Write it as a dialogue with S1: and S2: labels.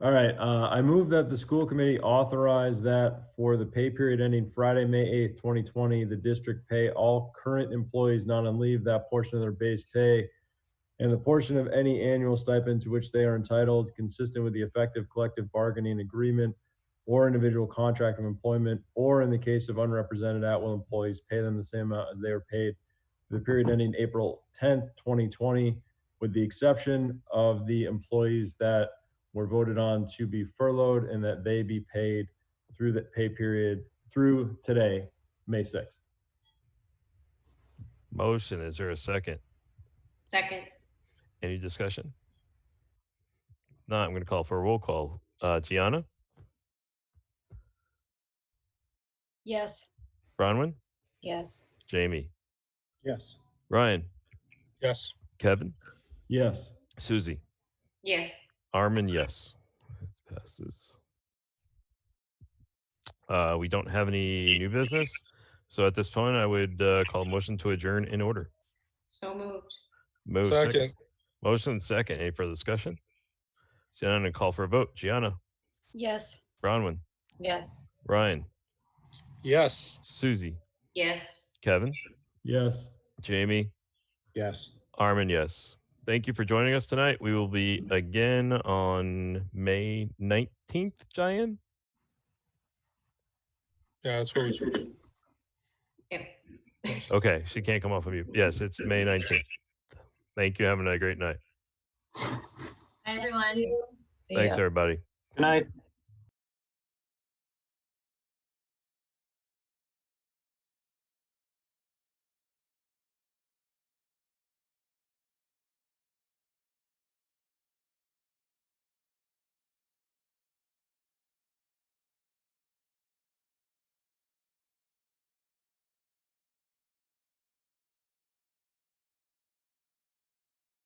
S1: All right, uh, I move that the school committee authorize that for the pay period ending Friday, May eighth, twenty twenty, the district pay all current employees not on leave that portion of their base pay and the portion of any annual stipend to which they are entitled consistent with the effective collective bargaining agreement or individual contract of employment, or in the case of unrepresented at-will employees, pay them the same amount as they are paid for the period ending April tenth, twenty twenty, with the exception of the employees that were voted on to be furloughed and that they be paid through the pay period through today, May 6th.
S2: Motion, is there a second?
S3: Second.
S2: Any discussion? No, I'm going to call for a roll call. Uh, Gianna,
S3: Yes.
S2: Bronwyn,
S3: Yes.
S2: Jamie,
S4: Yes.
S2: Ryan,
S4: Yes.
S2: Kevin,
S1: Yes.
S2: Susie,
S3: Yes.
S2: Armin, yes. That Passes. Uh, we don't have any new business. So at this point, I would uh, call a motion to adjourn in order.
S3: So moved.
S2: Move
S4: Second.
S2: Motion second. Any further discussion? So I'm going to call for a vote. Gianna,
S3: Yes.
S2: Bronwyn,
S3: Yes.
S2: Ryan,
S4: Yes.
S2: Susie,
S3: Yes.
S2: Kevin,
S1: Yes.
S2: Jamie,
S4: Yes.
S2: Armin, yes. Thank you for joining us tonight. We will be again on May 19th, Giant.
S4: Yeah, that's what we.
S3: Yep.
S2: Okay, she can't come off of you. Yes, it's May 19th. Thank you. Having a great night.
S3: Everyone.
S2: Thanks, everybody.
S4: Good night.